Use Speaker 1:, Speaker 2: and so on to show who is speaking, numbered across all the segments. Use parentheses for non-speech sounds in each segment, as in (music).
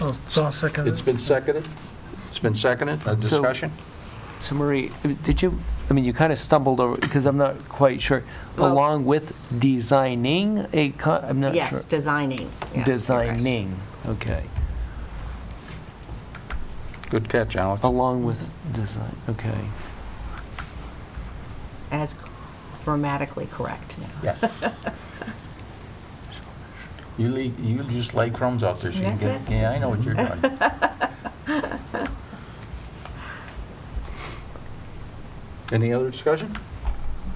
Speaker 1: Oh, so I'll second
Speaker 2: It's
Speaker 1: it.
Speaker 2: been seconded? It's been seconded, a
Speaker 3: So-
Speaker 2: discussion?
Speaker 3: So Marie, did you, I mean, you kind of stumbled over, because I'm not quite sure,
Speaker 4: Well-
Speaker 3: along with designing a, co- I'm not sure.
Speaker 4: Yes, designing. Yes, you're
Speaker 3: Designing, okay.
Speaker 2: Good catch, Alex.
Speaker 3: Along with design, okay.
Speaker 4: correct. As grammatically correct now.
Speaker 2: Yes. You leave, you just lay crumbs out there so you can
Speaker 4: That's
Speaker 2: get,
Speaker 4: it.
Speaker 2: yeah, I know what you're doing. Any other discussion?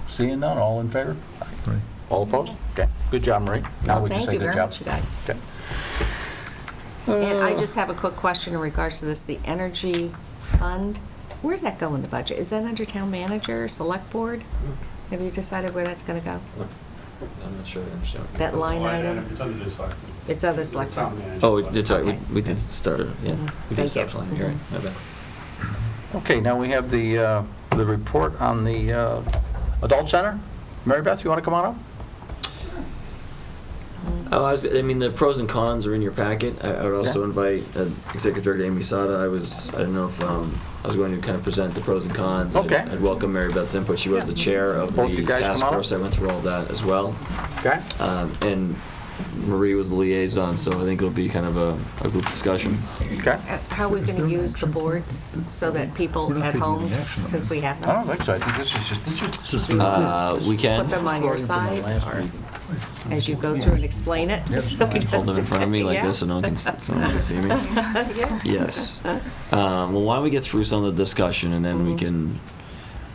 Speaker 2: Seeing none, all in favor?
Speaker 1: Right.
Speaker 2: All opposed? Okay, good job, Marie. Now
Speaker 4: Well,
Speaker 2: we can say good job.
Speaker 4: Thank you very much, you guys.
Speaker 2: Okay.
Speaker 4: And I just have a quick question in regards to this, the energy fund. Where's that go in the budget? Is that under town manager, select board? Have you decided where that's going to go?
Speaker 5: I'm not sure I understand. what you're-
Speaker 4: That line item?
Speaker 6: It's under the select.
Speaker 4: It's under select.
Speaker 6: Town manager.
Speaker 5: Oh, it's all right,
Speaker 4: Okay.
Speaker 5: we- we did start, yeah.
Speaker 4: Mhm.
Speaker 5: We
Speaker 4: Thank
Speaker 5: did start
Speaker 4: you. Mm-hmm.
Speaker 5: something, you're right, my bad.
Speaker 2: Okay, now we have the, uh, the report on the uh, Adult Center. Mary Beth, you want to come on up?
Speaker 4: Mm-hmm.
Speaker 5: Oh, I was, I mean, the pros and cons are in your packet. I, I would also
Speaker 2: Yeah.
Speaker 5: invite uh, Executive Director Amy Sada. I was, I don't know if, um, I was going to kind of present the pros and cons. I'd-
Speaker 2: Okay.
Speaker 5: I'd welcome Mary Beth's input. She was
Speaker 2: Yeah.
Speaker 5: the chair of
Speaker 2: Both you
Speaker 5: the
Speaker 2: guys
Speaker 5: task
Speaker 2: come on up.
Speaker 5: force. I went through all that as well.
Speaker 2: Okay.
Speaker 5: Um, and Marie was the liaison, so I think it'll be kind of a, a group discussion.
Speaker 2: Okay.
Speaker 4: Uh, How are we going to use the boards so that
Speaker 1: We're
Speaker 4: people
Speaker 1: not
Speaker 4: at
Speaker 1: taking
Speaker 4: home,
Speaker 1: any action on
Speaker 4: since we have
Speaker 2: I don't
Speaker 4: them,
Speaker 2: think so. I think this is just, this is-
Speaker 5: Uh, we can.
Speaker 4: put them on your side or as you go through and explain it?
Speaker 2: Yep.
Speaker 4: (laughs) so we
Speaker 5: Hold them in
Speaker 4: don't-
Speaker 5: front of me
Speaker 4: (laughs)
Speaker 5: like this so no one can, so no one can see me.
Speaker 4: Yes.
Speaker 5: Yes. Um, well, why don't we get through some of the discussion and then we can,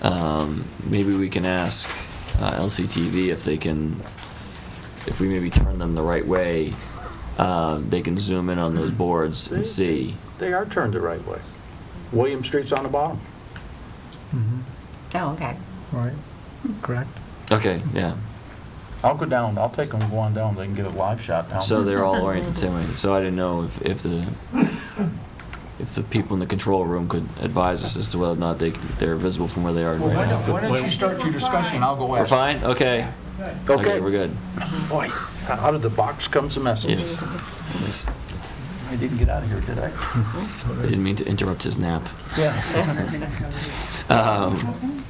Speaker 5: um, maybe we can ask uh, LCTV if they can, if we maybe turn them the right way, uh, they can zoom in on those boards and see.
Speaker 2: they are turned the right way. William Street's on the bottom.
Speaker 1: Mhm.
Speaker 4: Oh, okay.
Speaker 1: Right, correct.
Speaker 5: Okay, yeah.
Speaker 2: I'll go down, I'll take them, go on down, they can get a live shot down.
Speaker 5: So they're all oriented the same way. So I didn't know if, if the, if the people in the control room could advise us as to whether or not they, they're visible from where they are
Speaker 2: Well,
Speaker 5: right
Speaker 2: why don't,
Speaker 5: now.
Speaker 2: why don't you start your discussion, I'll go
Speaker 5: We're
Speaker 2: after.
Speaker 5: fine? Okay.
Speaker 2: Okay.
Speaker 5: We're good.
Speaker 2: Boy, out of the box comes a message.
Speaker 5: Yes. Yes.
Speaker 2: I didn't get out of here, did I?
Speaker 5: I didn't mean to interrupt his nap.
Speaker 2: Yeah.
Speaker 5: Um,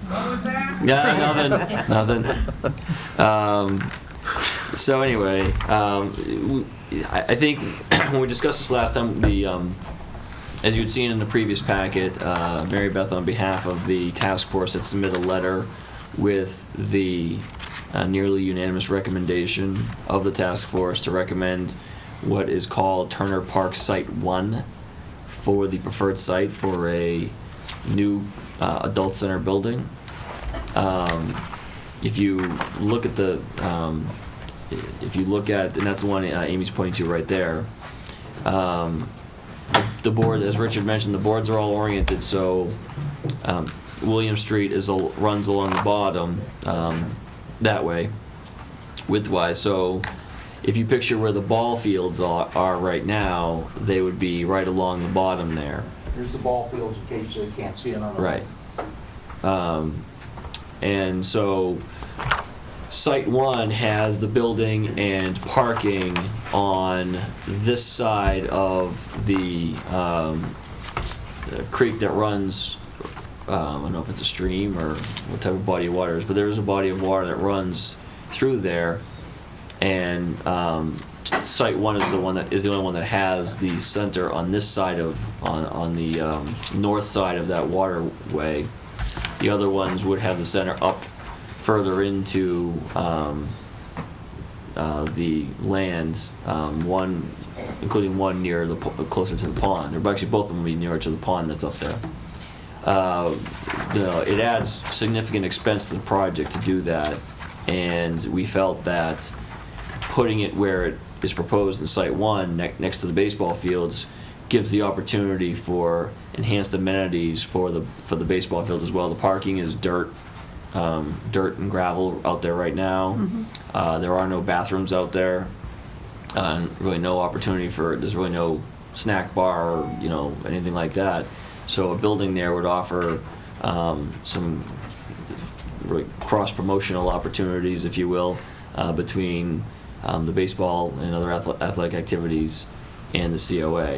Speaker 5: yeah, nothing, nothing. Um, so anyway, um, we, I, I think (clears throat) when we discussed this last time, the um, as you'd seen in the previous packet, uh, Mary Beth, on behalf of the task force, had submitted a letter with the uh, nearly unanimous recommendation of the task force to recommend what is called Turner Park Site One for the preferred site for a new uh, adult center building. Um, if you look at the, um, i- if you look at, and that's the one uh, Amy's pointing to right there. Um, the board, as Richard mentioned, the boards are all oriented, so um, William Street is, al- runs along the bottom um, that way, widthwise. So if you picture where the ball fields are, are right now, they would be right along the bottom there.
Speaker 2: Here's the ball fields, in case they can't see it on the.
Speaker 5: Right. Um, and so, site one has the building and parking on this side of the, um, the creek that runs, um, I don't know if it's a stream or what type of body of water it is, but there is a body of water that runs through there. And, um, site one is the one that, is the only one that has the center on this side of, on, on the, um, north side of that waterway. The other ones would have the center up further into, um, uh, the land, um, one, including one near the, po- closer to the pond, or actually both of them will be nearer to the pond that's up there. Uh, you know, it adds significant expense to the project to do that, and we felt that putting it where it is proposed in Site 1, ne- next to the baseball fields, gives the opportunity for enhanced amenities for the, for the baseball fields as well. The parking is dirt, um, dirt and gravel out there right now. Uh, There are no bathrooms out there, uh, and really no opportunity for, there's really no snack bar, or, you know, anything like that. So a building there would offer um, some really cross-promotional opportunities, if you will, uh, between um, the baseball and other athle- athletic activities and the COA.